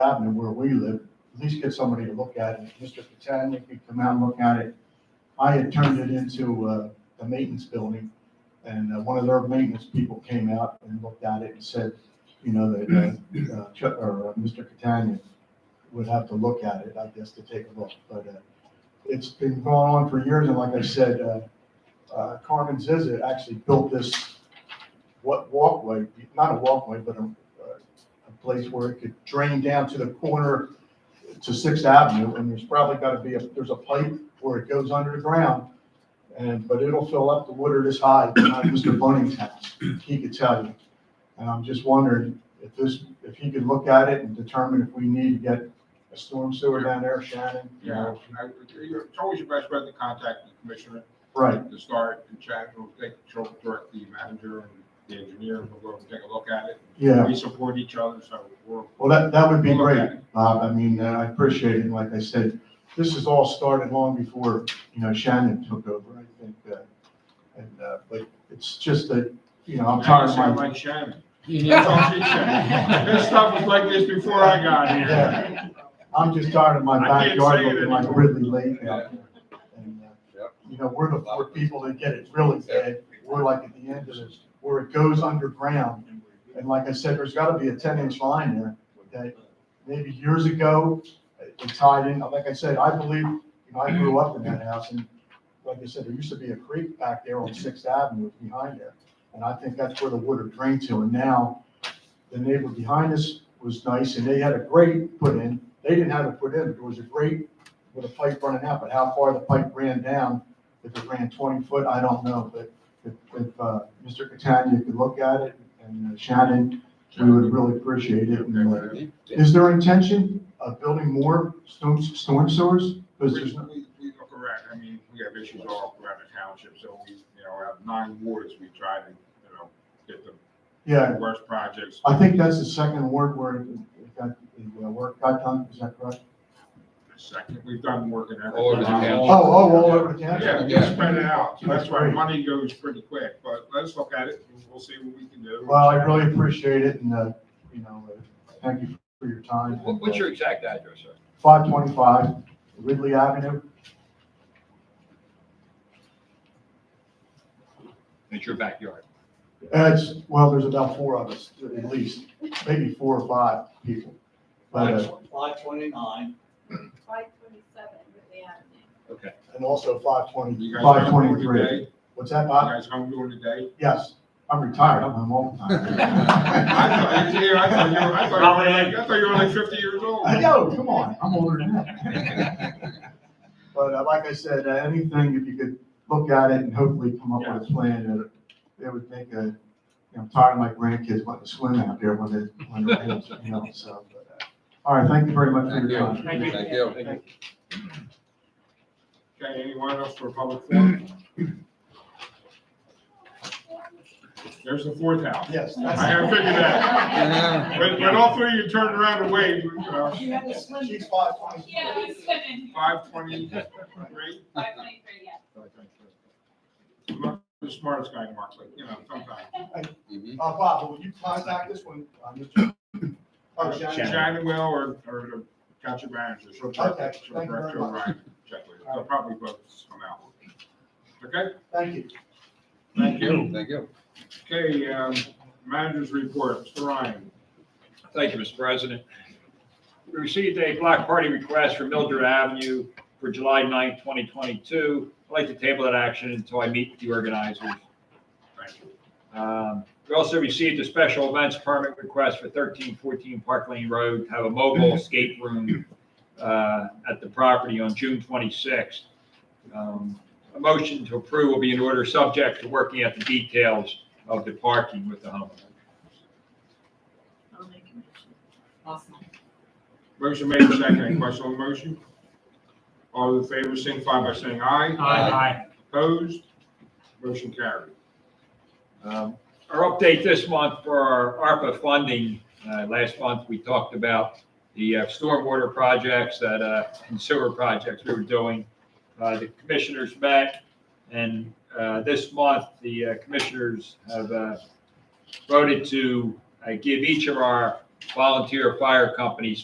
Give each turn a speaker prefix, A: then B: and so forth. A: Avenue where we live, at least get somebody to look at it. Mr. Catania could come out and look at it. I had turned it into uh, a maintenance building, and uh, one of their maintenance people came out and looked at it and said, you know, that uh, uh, Chuck, or uh, Mr. Catania would have to look at it, I guess, to take a look. But uh, it's been going on for years, and like I said, uh, uh, Carmen Zizek actually built this what walkway, not a walkway, but a uh, a place where it could drain down to the corner to Sixth Avenue, and there's probably gotta be, a there's a pipe where it goes under the ground, and, but it'll fill up the water this high, like Mr. Bunning's house, he could tell you. And I'm just wondering if this, if he could look at it and determine if we need to get a storm sewer down there, Shannon, you
B: Yeah,
A: know?
B: I- it's always your best bet to contact the commissioner.
A: Right,
B: To start and chat, we'll take, she'll direct the manager and the engineer, and we'll go and take a look at it.
A: yeah,
B: We support each other, so we're.
A: well, that, that would be
B: we'll look
A: great.
B: at it.
A: Bob. I mean, uh, I appreciate it. And like I said, this has all started long before, you know, Shannon took over, I think. uh, And, uh, but it's just that, you know, I'm tired of
B: Sound
A: my,
B: Like Shannon.
C: You
B: That's all she said. This stuff was like this before I got here.
A: Yeah. I'm just tired of my
B: I can't
A: backyard
B: say it
A: looking like
B: anymore.
A: Ridley Lake out there. And, uh,
D: Yep.
A: You know, we're the four people that get it really bad. We're like at the end of this, where it goes underground. And like I said, there's gotta be a ten inch line there that maybe years ago, it it tied in. Like I said, I believe, you know, I grew up in that house and like I said, there used to be a creek back there on Sixth Avenue behind there. And I think that's where the water drained to. And now the neighbor behind us was nice and they had a grate put in. They didn't have it put in, but there was a grate with a pipe running out, but how far the pipe ran down, if it ran twenty foot, I don't know, but if, if, uh, Mr. Catania could look at it and uh, Shannon, we would really appreciate it. And, uh, Is there intention of building more storm, storm sewers? Because
B: We,
A: there's, no-
B: we, we are correct, I mean, we have issues all around the township, so we, you know, have nine wards, we try to, you know, get the
A: yeah,
B: worst projects
A: I think that's the second ward where it it got, the uh, work got done, is that correct?
B: Second, we've done work in every.
D: All over the
A: Oh,
D: town.
A: oh, all over the
B: Yeah,
A: town?
B: we spread it out, so
A: That's
B: that's why
A: great.
B: money goes pretty quick, but let's look at it, and we'll see what we can do.
A: Well, I really appreciate it and, uh, you know, uh, thank you for your time.
D: What- What's your exact address, sir?
A: Five twenty-five Ridley Avenue.
D: It's your backyard.
A: Uh, It's, well, there's about four of us, at least, maybe four or five people. But, uh,
E: Five twenty-nine,
F: Five twenty-seven Ridley Avenue.
A: and also five twenty,
B: You guys
A: five
B: home during the day?
A: twenty-three.
B: You
A: What's that, Bob?
B: guys home during the day?
A: Yes, I'm retired, I'm home all the
B: I thought,
A: time.
B: yeah, I thought you were, I thought you were like, I thought you were like fifty years old.
A: I know, come on, I'm older than that. But uh, like I said, uh, anything, if you could look at it and hopefully come up with a plan that it would make a, you know, I'm tired of my grandkids wanting to swim out there when they, when they're kids, you know, so. but, uh, All right, thank you very much for
D: Thank
A: your
D: you.
A: time.
C: Thank you.
D: Thank you.
B: Okay, anyone else for public forum? There's the fourth house.
A: Yes,
B: I
A: that's,
B: have figured that.
D: Yeah.
B: When, when all three of you turned around and waved, you know,
E: you had to swim.
A: she's five twenty.
F: Yeah, I was swimming.
B: five twenty-three?
F: Five twenty-three, yeah.
B: I'm not the smartest guy in Marksville, you know, sometimes.
D: Mhm.
A: Uh, Bob, will you contact us when, uh, Mr. Oh, Shannon.
B: Shannon will, or, or the council manager, she'll check,
A: Okay,
B: she'll
A: thank you
B: direct,
A: very
B: she'll
A: much.
B: write, check with it. They'll probably both come out. Okay,
A: Thank you.
B: thank you.
D: Thank you.
B: Okay, um, manager's report, Mr. Ryan.
G: Thank you, Mr. President. We received a block party request for Mildred Avenue for July 9, 2022. I'd like to table that action until I meet with the organizers.
B: Thank you.
G: Um, We also received a special events permit request for 1314 Park Lane Road to have a mobile escape room uh, at the property on June 26th. Um, A motion to approve will be in order, subject to working out the details of the parking with the homeowner.
F: I'll make a motion.
B: Motion made, second, any question on the motion? All in favor, signify by saying aye.
D: Aye.
B: Opposed? Motion carried.
G: Um, Our update this month for our ARPA funding, uh, last month, we talked about the uh, stormwater projects that, uh, and sewer projects we were doing. Uh, The commissioners met, and uh, this month, the uh, commissioners have uh, voted to uh, give each of our volunteer fire companies